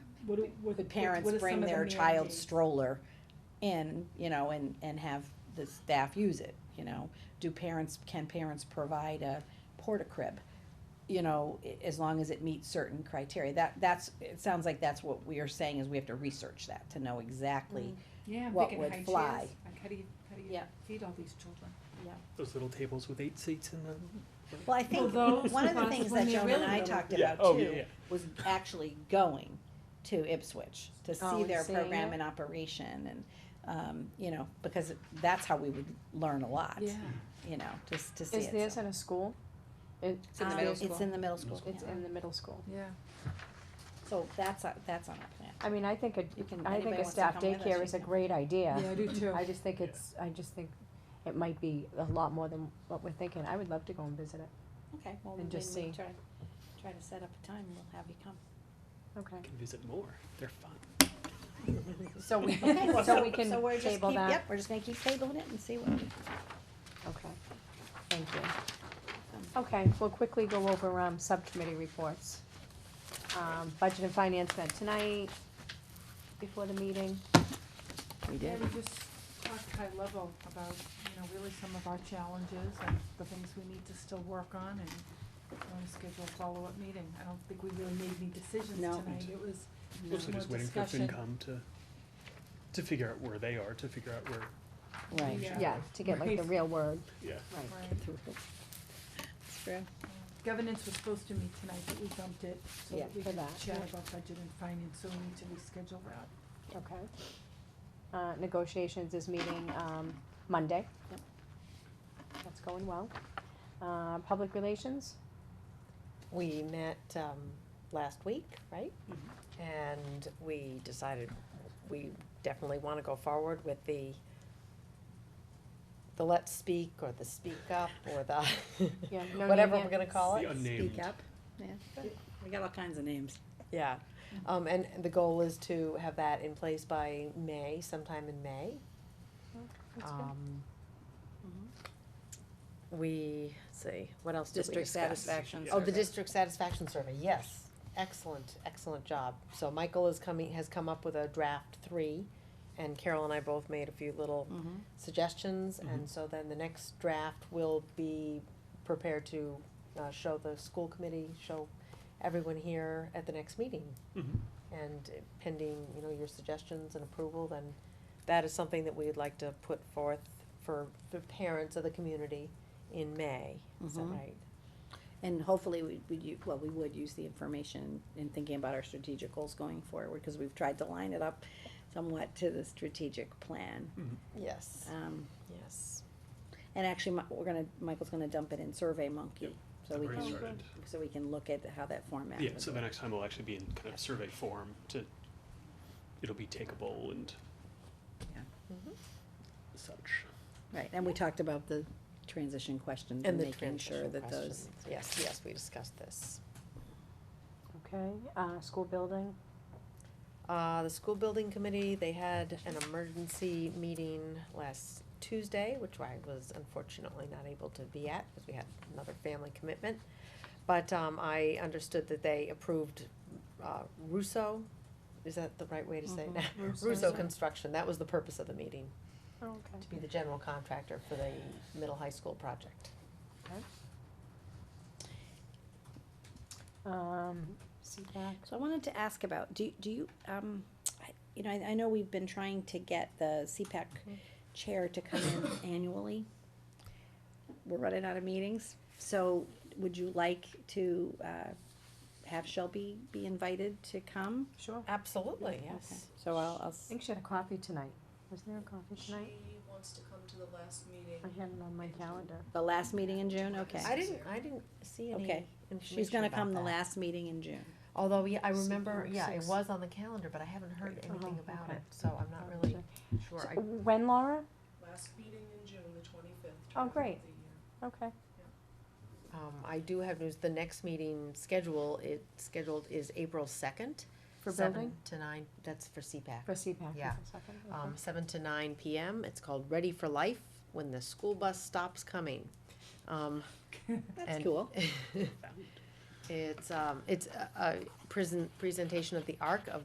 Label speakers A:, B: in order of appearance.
A: what, do- what?
B: Could
A: what-
B: parents
A: what are some
B: bring
A: of the
B: their child
A: mandates?
B: stroller in, you know, and, and have the staff use it, you know? Do parents, can parents provide a porta crib? You know, i- as long as it meets certain criteria, that, that's, it sounds like that's what we are saying is we have to research that to know exactly.
A: Yeah, I'm
B: what
A: thinking
B: would
A: high
B: fly.
A: chairs, like how do you, how do you
B: Yeah.
A: feed all these children?
C: Those little tables with eight seats in them.
B: Well, I think,
A: Well, those
B: one of the
A: spots
B: things
A: when
B: that
A: they're
B: Joan and
A: really
B: I
A: little.
B: talked
C: Yeah,
B: about
C: oh, yeah,
B: too
C: yeah.
B: was actually going to Ipswich to
D: Oh,
B: see
D: and
B: their
D: seeing
B: program
D: it.
B: in operation and, um, you know, because that's how we would learn a lot. you know, just to see
D: Is
B: it.
D: this
B: so.
D: in a school? It-
B: It's in the
A: Um,
B: middle
D: there's-
B: school. It's in the middle school.
D: It's in the middle school.
A: Yeah.
B: So that's, on- that's on our plan.
D: I mean, I think a,
B: You can-
D: I
B: anybody
D: think a
B: wants to
D: staff
B: come with us,
D: daycare
B: you
D: is a
B: can.
D: great idea.
A: I do too.
D: I just think it's, I just think it might be a lot more than what we're thinking. I would love to go and visit it.
B: Okay, well,
D: And
B: then
D: just
B: we
D: see.
B: try, try to set up a time, we'll have you come.
D: Okay.
C: You can visit more. They're fun.
D: So we,
B: Okay, well,
D: so we can
B: so we're just
D: table
B: keep-
D: that?
B: Yep, we're just gonna keep tabling it and see what we.
D: Okay, thank you.
B: Oh,
D: Okay, we'll quickly go over, um, subcommittee reports. Um, budget and finance met tonight, before the meeting.
B: We
A: Yeah, we just talked high level about, you know, really some of our challenges and the things we need to still work on and want to schedule a follow-up meeting. I don't think we really made any decisions
B: No.
A: tonight. It was
C: Mostly
A: more
C: just waiting for
A: discussion.
C: FinCom to, to figure out where they are, to figure out where,
B: Right.
A: Yeah.
D: Yeah, to get like the
A: Right.
D: real word.
C: yeah.
A: Right.
B: It's true.
A: Governance was supposed to meet tonight, but we bumped it so
B: Yeah,
A: that we
D: for
A: could
D: that.
A: chat about budget and finance, so we need to reschedule that.
D: Okay. Uh, negotiations is meeting, um, Monday.
B: Yep.
D: That's going well. Uh, public relations,
E: We met um, last week, right?
C: Mm-hmm.
E: And we decided we definitely want to go forward with the, the let's speak or the speak up or the,
D: yeah, no name
E: whatever
D: yet.
E: we're going to call it.
C: The unnamed.
E: Speak up.
B: We got all kinds of names.
E: Yeah,
D: Mm-hmm.
E: um, and the goal is to have that in place by May, sometime in May.
D: That's good.
E: Um,
B: Mm-hmm.
E: We, let's see, what else did we discuss? Oh, the district satisfaction survey, yes, excellent, excellent job. So Michael is coming, has come up with a draft three, and Carol and I both made a few little
B: Mm-hmm,
E: suggestions, and so then the next draft will be prepared to, uh, show the school committee, show everyone here at the next meeting.
C: Mhm.
E: And pending, you know, your suggestions and approval, then that is something that we'd like to put forth for the parents of the community in May, is that
B: Mhm.
E: right?
B: And hopefully we would, u- well, we would use the information in thinking about our strategic goals going forward, because we've tried to line it up somewhat to the strategic plan.
E: Yes,
B: Um,
E: yes.
B: and actually, Mi- we're gonna, Michael's gonna dump it in Survey Monkey, so we
C: Already
B: can,
C: started.
B: so we can look at how that format
C: Yeah,
B: would
C: so
B: work.
C: the next time will actually be in kind of survey form to, it'll be takeable and
B: Yeah.
E: Mhm.
C: such.
B: Right, and we talked about the transition questions and
E: And the
B: making sure
E: transition
B: that those,
E: questions, yes, yes, we discussed this.
D: Okay, uh, school building,
E: Uh, the school building committee, they had an emergency meeting last Tuesday, which I was unfortunately not able to be at because we had another family commitment. But, um, I understood that they approved, uh, Russo, is that the right way to say it now? Russo Construction, that was the purpose of the meeting,
D: okay.
E: to be the general contractor for the middle high school project.
D: Um, CPAC,
B: so I wanted to ask about, do, do you, um, I- you know, I, I know we've been trying to get the CPAC
E: Mm-hmm.
B: chair to come in annually. We're running out of meetings, so would you like to, uh, have Shelby be invited to come?
D: sure. I
E: Absolutely,
B: Okay,
E: yes.
B: So I'll, I'll, s-
D: think she had a coffee tonight. Was there a coffee
F: She
D: tonight?
F: wants to come to the last meeting.
D: I had it on my calendar.
B: the last meeting in June, okay.
E: I didn't, I didn't see any
B: Okay.
E: information
B: She's gonna
E: about
B: come the
E: that.
B: last meeting in June.
E: Although, yeah, I
F: Six
E: remember,
F: or
E: yeah, it
F: six.
E: was on the calendar, but I haven't heard anything
D: Oh,
E: about
D: okay.
E: it, so I'm not really sure.
D: So
E: I-
D: When, Laura?
F: Last meeting in June, the twenty-fifth.
D: Oh, great. Okay.
E: Um, I do have news, the next meeting schedule, it scheduled is April second.
D: For building?
E: To nine, that's for CPAC.
D: For CPAC. is
E: Yeah.
D: the second, okay.
E: Um, seven to nine PM, it's called Ready for Life, When the School Bus Stops Coming. Um,
B: That's
E: and-
B: cool.
E: It's, um, it's a, a present, presentation of the arc of